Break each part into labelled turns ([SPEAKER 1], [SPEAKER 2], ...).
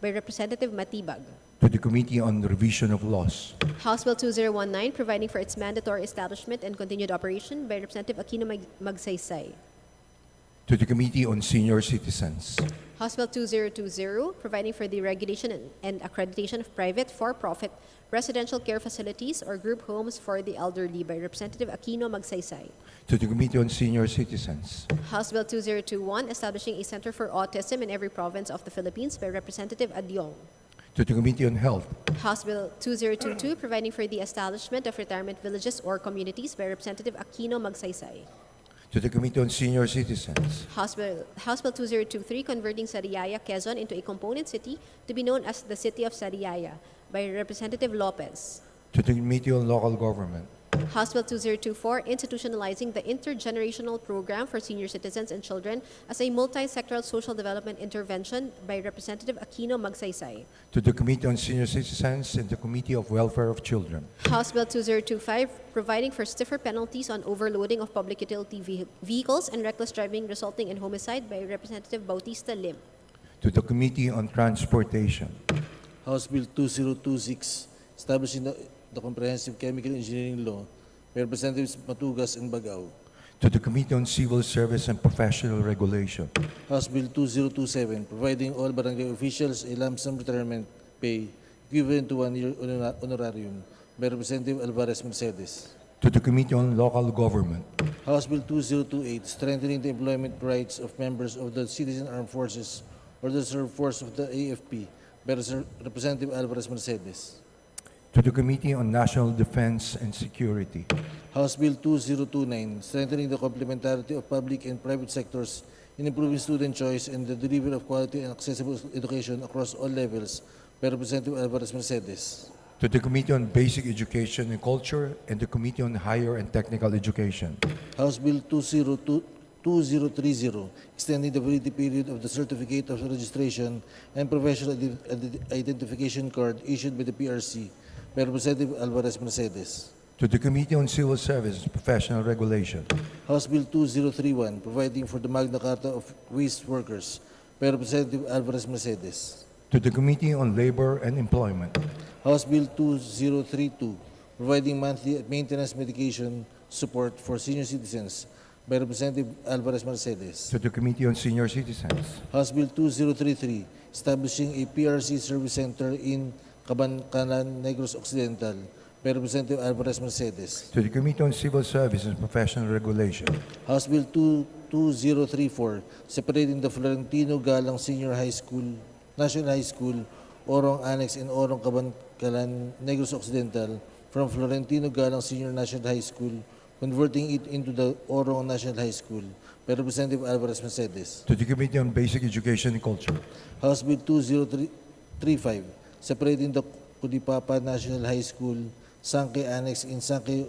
[SPEAKER 1] by Representative Matibag.
[SPEAKER 2] to the Committee on Revision of Laws,
[SPEAKER 1] House Bill 2019, providing for its mandatory establishment and continued operation by Representative Aquino Mag- Magsaysay.
[SPEAKER 2] to the Committee on Senior Citizens,
[SPEAKER 1] House Bill 2020, providing for the regulation and- and accreditation of private for-profit residential care facilities or group homes for the elderly by Representative Aquino Magsaysay.
[SPEAKER 2] to the Committee on Senior Citizens,
[SPEAKER 1] House Bill 2021, establishing a center for autism in every province of the Philippines by Representative Adyong.
[SPEAKER 2] to the Committee on Health,
[SPEAKER 1] House Bill 2022, providing for the establishment of retirement villages or communities by Representative Aquino Magsaysay.
[SPEAKER 2] to the Committee on Senior Citizens,
[SPEAKER 1] House Bill, House Bill 2023, converting Sariaya, Quezon into a component city to be known as the City of Sariaya by Representative Lopez.
[SPEAKER 2] to the Committee on Local Government,
[SPEAKER 1] House Bill 2024, institutionalizing the intergenerational program for senior citizens and children as a multi-sectoral social development intervention by Representative Aquino Magsaysay.
[SPEAKER 2] to the Committee on Senior Citizens and the Committee of Welfare of Children,
[SPEAKER 1] House Bill 2025, providing for stiffer penalties on overloading of public utility vehi- vehicles and reckless driving resulting in homicide by Representative Bautista Lim.
[SPEAKER 2] to the Committee on Transportation,
[SPEAKER 3] House Bill 2026, establishing the, the comprehensive chemical engineering law by Representatives Matugas and Bagao.
[SPEAKER 2] to the Committee on Civil Service and Professional Regulation,
[SPEAKER 3] House Bill 2027, providing all barangay officials a lump sum retirement pay equivalent to one year honora- honorarium by Representative Alvarez Mercedes.
[SPEAKER 2] to the Committee on Local Government,
[SPEAKER 3] House Bill 2028, strengthening the employment rights of members of the Citizen Armed Forces or the Reserve Force of the AFP by Reser- Representative Alvarez Mercedes.
[SPEAKER 2] to the Committee on National Defense and Security,
[SPEAKER 3] House Bill 2029, strengthening the complementarity of public and private sectors in improving student choice and the delivery of quality and accessible education across all levels by Representative Alvarez Mercedes.
[SPEAKER 2] to the Committee on Basic Education and Culture, and the Committee on Higher and Technical Education,
[SPEAKER 3] House Bill 202 2030, extending the validity period of the Certificate of Registration and Professional Iden- Iden- Identification Card issued by the PRC by Representative Alvarez Mercedes.
[SPEAKER 2] to the Committee on Civil Service and Professional Regulation,
[SPEAKER 3] House Bill 2031, providing for the Magna Carta of Waste Workers by Representative Alvarez Mercedes.
[SPEAKER 2] to the Committee on Labor and Employment,
[SPEAKER 3] House Bill 2032, providing monthly maintenance medication support for senior citizens by Representative Alvarez Mercedes.
[SPEAKER 2] to the Committee on Senior Citizens,
[SPEAKER 3] House Bill 2033, establishing a PRC service center in Cabancanan, Negros Occidental by Representative Alvarez Mercedes.
[SPEAKER 2] to the Committee on Civil Service and Professional Regulation,
[SPEAKER 3] House Bill 2- 2034, separating the Florentino Galang Senior High School, National High School, Orong Annex and Orong Cabancalan, Negros Occidental from Florentino Galang Senior National High School, converting it into the Orong National High School by Representative Alvarez Mercedes.
[SPEAKER 2] to the Committee on Basic Education and Culture,
[SPEAKER 3] House Bill 2035, separating the Kudipapa National High School, Sangke Annex in Sangke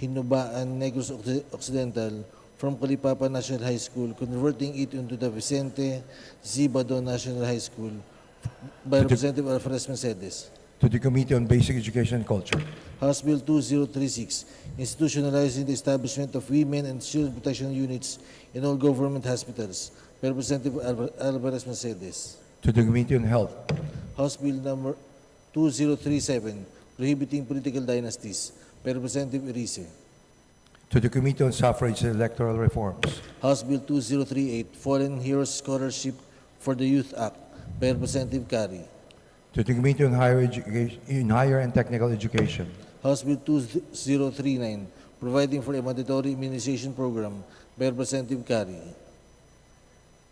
[SPEAKER 3] Hinubaan, Negros Occ- Occidental from Kudipapa National High School, converting it into the Vicente Zibado National High School by Representative Alfred Mercedes.
[SPEAKER 2] to the Committee on Basic Education and Culture,
[SPEAKER 3] House Bill 2036, institutionalizing the establishment of women and children protection units in all government hospitals by Representative Alvar- Alvarez Mercedes.
[SPEAKER 2] to the Committee on Health,
[SPEAKER 3] House Bill number 2037 prohibiting political dynasties by Representative Erice.
[SPEAKER 2] to the Committee on Suffrage and Electoral Reforms,
[SPEAKER 3] House Bill 2038 Fallen Heroes Scholarship for the Youth Act by Representative Kari.
[SPEAKER 2] to the Committee on Higher Education, in Higher and Technical Education,
[SPEAKER 3] House Bill 2039 providing for a mandatory immunization program by Representative Kari.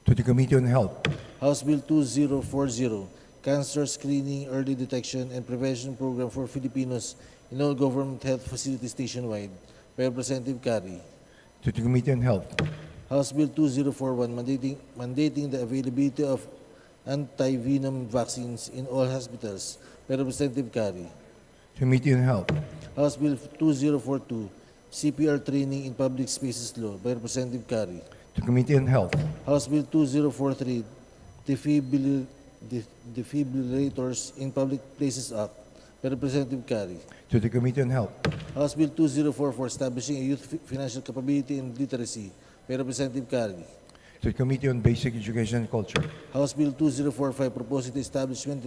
[SPEAKER 2] to the Committee on Health,
[SPEAKER 3] House Bill 2040 Cancer Screening, Early Detection, and Prevention Program for Filipinos in all government health facilities nationwide by Representative Kari.
[SPEAKER 2] to the Committee on Health,
[SPEAKER 3] House Bill 2041 mandating, mandating the availability of anti-venom vaccines in all hospitals by Representative Kari.
[SPEAKER 2] Committee on Health,
[SPEAKER 3] House Bill 2042 CPR training in public spaces law by Representative Kari.
[SPEAKER 2] to Committee on Health,
[SPEAKER 3] House Bill 2043 defibril- def- defibrillators in public places act by Representative Kari.
[SPEAKER 2] to the Committee on Health,
[SPEAKER 3] House Bill 2044 establishing a youth fi- financial capability and literacy by Representative Kari.
[SPEAKER 2] to the Committee on Basic Education and Culture.
[SPEAKER 3] House Bill 2045 proposing the establishment